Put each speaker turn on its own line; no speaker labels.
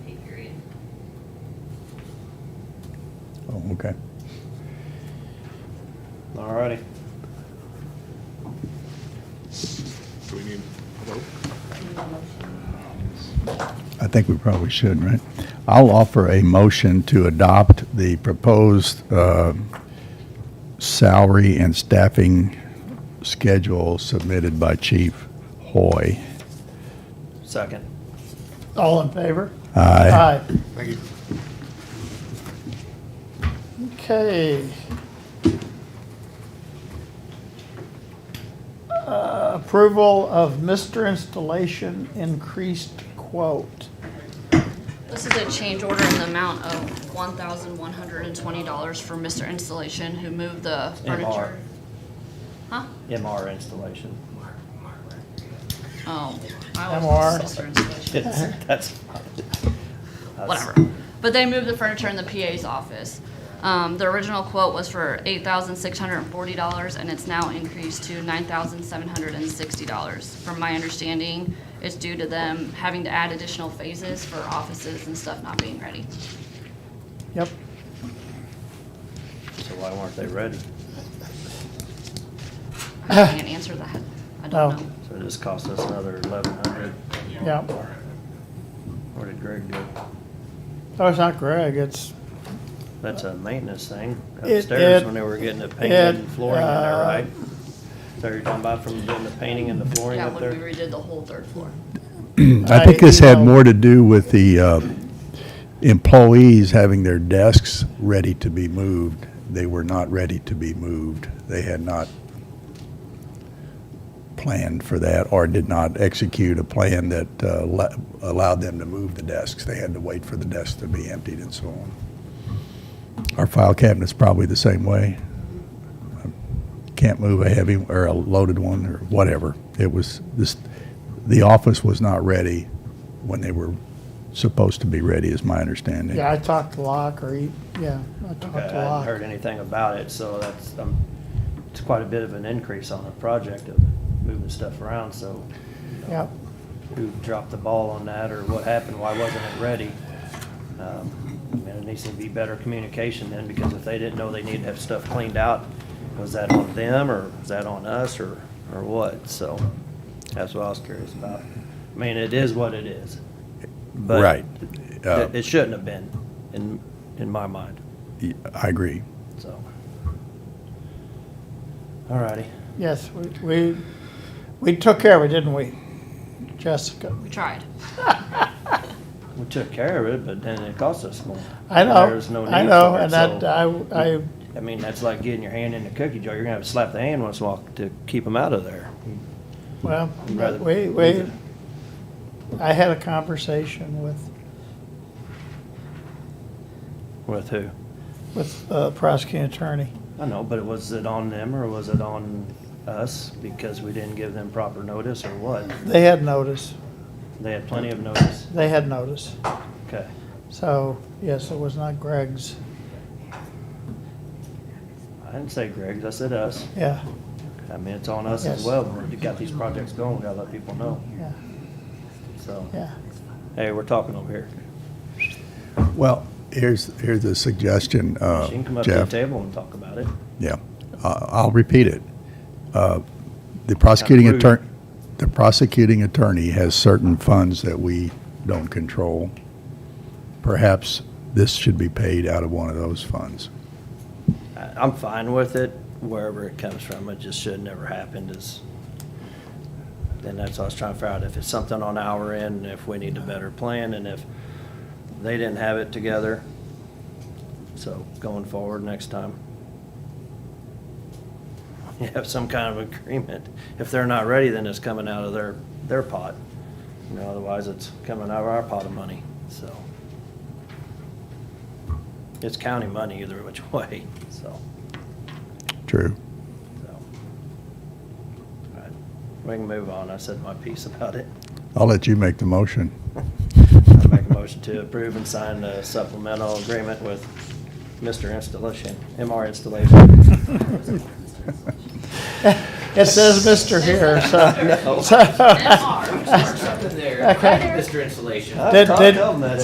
Oh, okay.
All righty.
Do we need a vote?
I think we probably should, right? I'll offer a motion to adopt the proposed uh, salary and staffing schedule submitted by Chief Hoy.
Second.
All in favor?
Aye.
Thank you.
Okay. Uh, Approval of Mr. Installation increased quote.
This is a change order in the amount of one thousand one hundred and twenty dollars for Mr. Installation who moved the furniture. Huh?
MR installation.
Oh, I
MR.
was Mr. Installation.
It's- That's. that's-
whatever. But they moved the furniture in the PA's office. Um, the original quote was for eight thousand six hundred and forty dollars, and it's now increased to nine thousand seven hundred and sixty dollars. From my understanding, it's due to them having to add additional phases for offices and stuff not being ready.
Yep.
So why weren't they ready?
I can't answer that. I
No.
don't know.
So it just cost us another eleven hundred.
Yep.
Where did Greg go?
Oh, it's not Greg, it's.
That's a maintenance thing
It-
upstairs
it-
when they were getting the painting and
it,
flooring in there,
uh,
right? So you're talking about from doing the painting and the flooring
Yeah,
up
when we
there?
redid the whole third floor.
I think this had more to do with the uh, employees having their desks ready to be moved. They were not ready to be moved. They had not planned for that or did not execute a plan that uh, le- allowed them to move the desks. They had to wait for the desks to be emptied and so on. Our file cabinet's probably the same way. Can't move a heavy or a loaded one or whatever. It was, this, the office was not ready when they were supposed to be ready, is my understanding.
Yeah, I talked to Locke, or he, yeah, I
Okay,
talked
I
to
hadn't
Locke.
heard anything about it, so that's, um, it's quite a bit of an increase on the project of moving stuff around, so
Yep,
who dropped the ball on that or what happened, why wasn't it ready? Um, I mean, it needs to be better communication then, because if they didn't know they needed to have stuff cleaned out, was that on them or was that on us or, or what? So that's what I was curious about. I mean, it is what it is. but
Right. Uh,
It it shouldn't have been, in, in my mind,
I agree.
so. All righty.
yes, we, we, we took care of it, didn't we? Jessica,
We tried.
We took care of it, but then it cost us more.
I know,
There's no
I
need
know,
for it,
and that, uh,
so-
I, I,
I mean, that's like getting your hand in the cookie jar. You're gonna have to slap the hand once in a while to keep them out of there.
well,
You'd rather-
we, we, I had a conversation with
With who?
with the prosecuting attorney.
I know, but was it on them or was it on us because we didn't give them proper notice or what?
They had notice,
They had plenty of notice.
they had notice.
Okay.
So, yes, it was not Greg's,
I didn't say Greg's, I said us.
yeah,
I mean, it's on us as
Yes.
well. We got these projects going, we gotta let people know,
yeah,
so.
yeah.
Hey, we're talking over here.
Well, here's, here's a suggestion, uh,
She can come up to the
Jeff.
table and talk about it.
Yeah, Uh, I'll repeat it. Uh, The prosecuting
Kinda rude.
attorney, the prosecuting attorney has certain funds that we don't control. Perhaps this should be paid out of one of those funds.
I- I'm fine with it, wherever it comes from, it just should never happened is, and that's what I was trying to figure out, if it's something on our end, if we need a better plan, and if they didn't have it together. So going forward next time. You have some kind of agreement. If they're not ready, then it's coming out of their, their pot. You know, otherwise it's coming out of our pot of money, so. It's county money either which way, so.
True.
So, all right, We can move on. I said my piece about it.
I'll let you make the motion.
I make a motion to approve and sign the supplemental agreement with Mr. Installation, MR Installation.
It says Mr. here, so,
No.
so,
MR.
Something there,
Okay.
Mr. Installation.
I
Did-
told
did-
them that